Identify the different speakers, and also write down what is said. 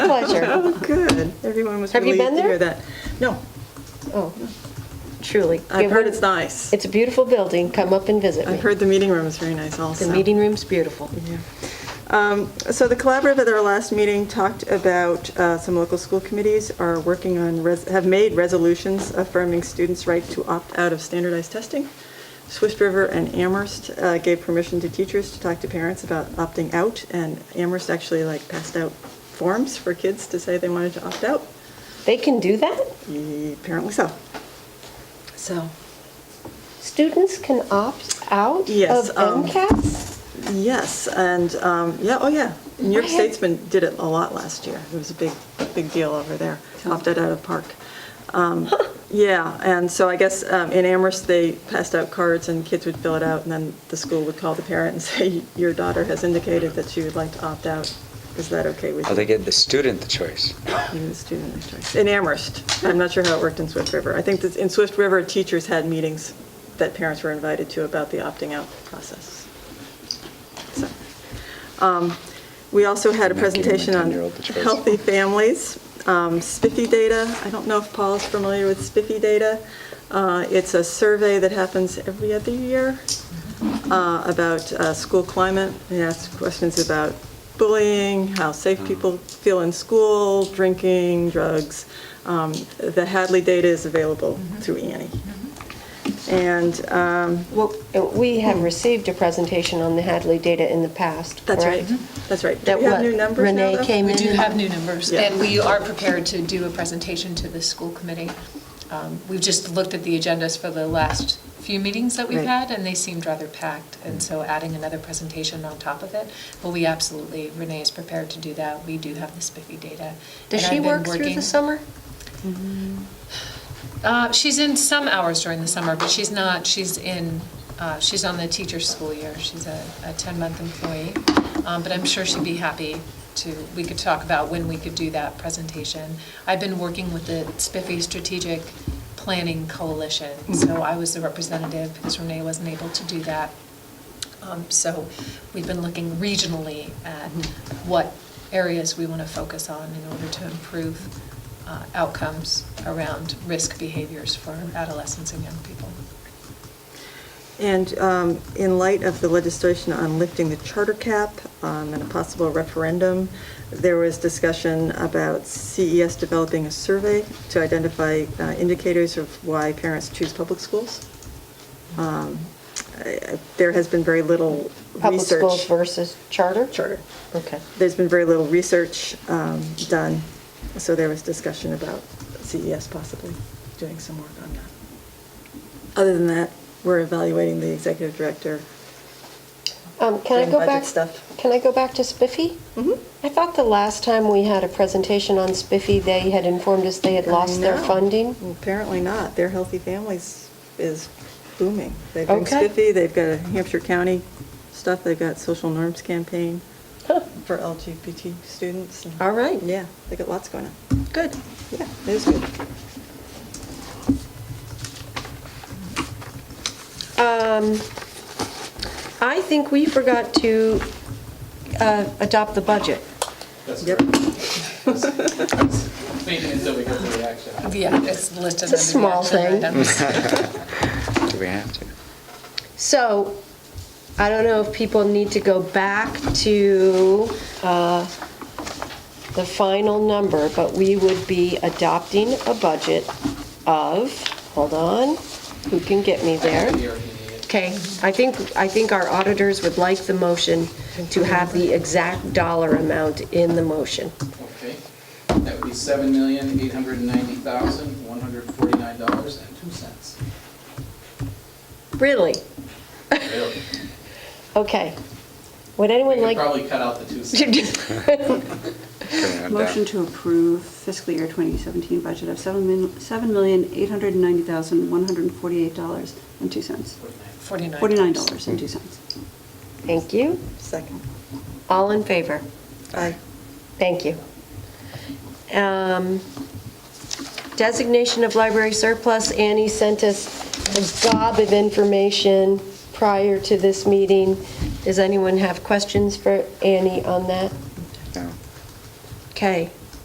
Speaker 1: there.
Speaker 2: Oh, good. Everyone was
Speaker 1: Have you
Speaker 2: relieved
Speaker 1: been
Speaker 2: to hear
Speaker 1: there?
Speaker 2: that. No,
Speaker 1: Oh, truly.
Speaker 2: I've
Speaker 1: Give
Speaker 2: heard
Speaker 1: her-
Speaker 2: it's nice.
Speaker 1: It's a beautiful building. Come up and visit me.
Speaker 2: I've heard the meeting room is very nice also.
Speaker 1: The meeting room's beautiful.
Speaker 2: Yeah. Um, So the collaborative at our last meeting talked about uh, some local school committees are working on, res- have made resolutions affirming students' right to opt out of standardized testing. Swift River and Amherst uh, gave permission to teachers to talk to parents about opting out, and Amherst actually like passed out forms for kids to say they wanted to opt out.
Speaker 1: They can do that?
Speaker 2: Apparently so. So,
Speaker 1: Students can opt out
Speaker 2: Yes,
Speaker 1: of
Speaker 2: um,
Speaker 1: MCAS?
Speaker 2: Yes, and, um, yeah, oh, yeah. New York
Speaker 1: I had-
Speaker 2: State's been, did it a lot last year. It was a big, big deal over there, opted out of Park. Um, Yeah, and so I guess um, in Amherst, they passed out cards and kids would fill it out, and then the school would call the parent and say, your daughter has indicated that she would like to opt out. Is that okay with you?
Speaker 3: Oh, they give the student the choice.
Speaker 2: Even the student their choice. In Amherst. I'm not sure how it worked in Swift River. I think that in Swift River, teachers had meetings that parents were invited to about the opting out process. So, um, We also had a
Speaker 3: I'm not giving my
Speaker 2: presentation on
Speaker 3: 10-year-old the choice.
Speaker 2: healthy families, um, SPIFFy data. I don't know if Paul's familiar with SPIFFy data. Uh, It's a survey that happens every other year uh, about uh, school climate. They ask questions about bullying, how
Speaker 3: Mm.
Speaker 2: safe people feel in school, drinking, drugs. Um, The Hadley data is available
Speaker 1: Mm-hmm.
Speaker 2: through E Annie. And um,
Speaker 1: Well, Uh, we have received a presentation on the Hadley data in the past,
Speaker 2: that's right,
Speaker 1: correct?
Speaker 2: that's right. Do
Speaker 1: That
Speaker 2: we have
Speaker 1: what,
Speaker 2: new numbers now,
Speaker 1: Renee
Speaker 2: though?
Speaker 1: came
Speaker 4: We
Speaker 1: in?
Speaker 4: do
Speaker 1: and-
Speaker 4: have new numbers,
Speaker 2: Yeah.
Speaker 4: and we are prepared to do a presentation to the school committee. Um, We've just looked at the agendas for the last few meetings that we've
Speaker 2: Right.
Speaker 4: had, and they seemed rather packed, and so adding another presentation on top of it, but we absolutely, Renee is prepared to do that. We do have the spiffy data.
Speaker 1: Does
Speaker 4: and
Speaker 1: she
Speaker 4: I've been
Speaker 1: work through the
Speaker 4: working-
Speaker 1: summer?
Speaker 4: Uh, She's in some hours during the summer, but she's not, she's in, uh, she's on the teacher's school year. She's a a 10-month employee, Um, but I'm sure she'd be happy to, we could talk about when we could do that presentation. I've been working with the Spiffy Strategic Planning Coalition, so I was the representative because Renee wasn't able to do that. Um, So we've been looking regionally at
Speaker 1: Hmm.
Speaker 4: what areas we want to focus on in order to improve uh, outcomes around risk behaviors for adolescents and young people.
Speaker 2: And um, in light of the legislation on lifting the charter cap um, and a possible referendum, there was discussion about CES developing a survey to identify uh, indicators of why parents choose public schools. Um, I- I- There has been very little
Speaker 1: Public
Speaker 2: research.
Speaker 1: schools versus charter?
Speaker 2: Charter.
Speaker 1: Okay.
Speaker 2: There's been very little research um, done, so there was discussion about CES possibly doing some work on that. Other than that, we're evaluating the executive director
Speaker 1: Um, Can I
Speaker 2: Doing
Speaker 1: go
Speaker 2: budget
Speaker 1: back?
Speaker 2: stuff.
Speaker 1: Can I go back to Spiffy?
Speaker 2: Mhm.
Speaker 1: I thought the last time we had a presentation on Spiffy, they had informed us they had lost their
Speaker 2: No.
Speaker 1: funding.
Speaker 2: Apparently not. Their Healthy Families is booming. They've been
Speaker 1: Okay.
Speaker 2: spiffy, they've got a Hampshire County stuff, they've got social norms campaign for LGBT students. and-
Speaker 1: All right.
Speaker 2: Yeah, they got lots going on. Good. Yeah, it is good.
Speaker 1: Um, I think we forgot to uh, adopt the budget.
Speaker 5: That's
Speaker 2: Yep.
Speaker 5: correct. Waiting until we get to the action. item.
Speaker 4: Yeah, it's listed under the
Speaker 1: It's a small
Speaker 4: action
Speaker 1: thing.
Speaker 4: items.
Speaker 3: Do we have to?
Speaker 1: So I don't know if people need to go back to uh, the final number, but we would be adopting a budget of, hold on, who can get me there?
Speaker 5: We are meeting it.
Speaker 1: Okay, I think, I think our auditors would like the motion to have the exact dollar amount in the motion.
Speaker 5: Okay. That would be seven million, eight hundred and ninety thousand, one hundred and forty-nine dollars and two cents.
Speaker 1: Really?
Speaker 5: Really?
Speaker 1: Okay. Would
Speaker 5: We
Speaker 1: anyone
Speaker 5: could
Speaker 1: like?
Speaker 5: probably cut out the two cents.
Speaker 3: Putting it
Speaker 6: Motion
Speaker 3: down.
Speaker 6: to approve fiscal year 2017 budget of seven mil- $7,890,148.02.
Speaker 4: Forty-nine.
Speaker 6: $49.02.
Speaker 1: Thank you.
Speaker 2: Second.
Speaker 1: All in favor?
Speaker 2: Aye.
Speaker 1: Thank you. Um, Designation of library surplus, Annie sent us a gob of information prior to this meeting. Does anyone have questions for Annie on that?
Speaker 3: No.
Speaker 1: Okay.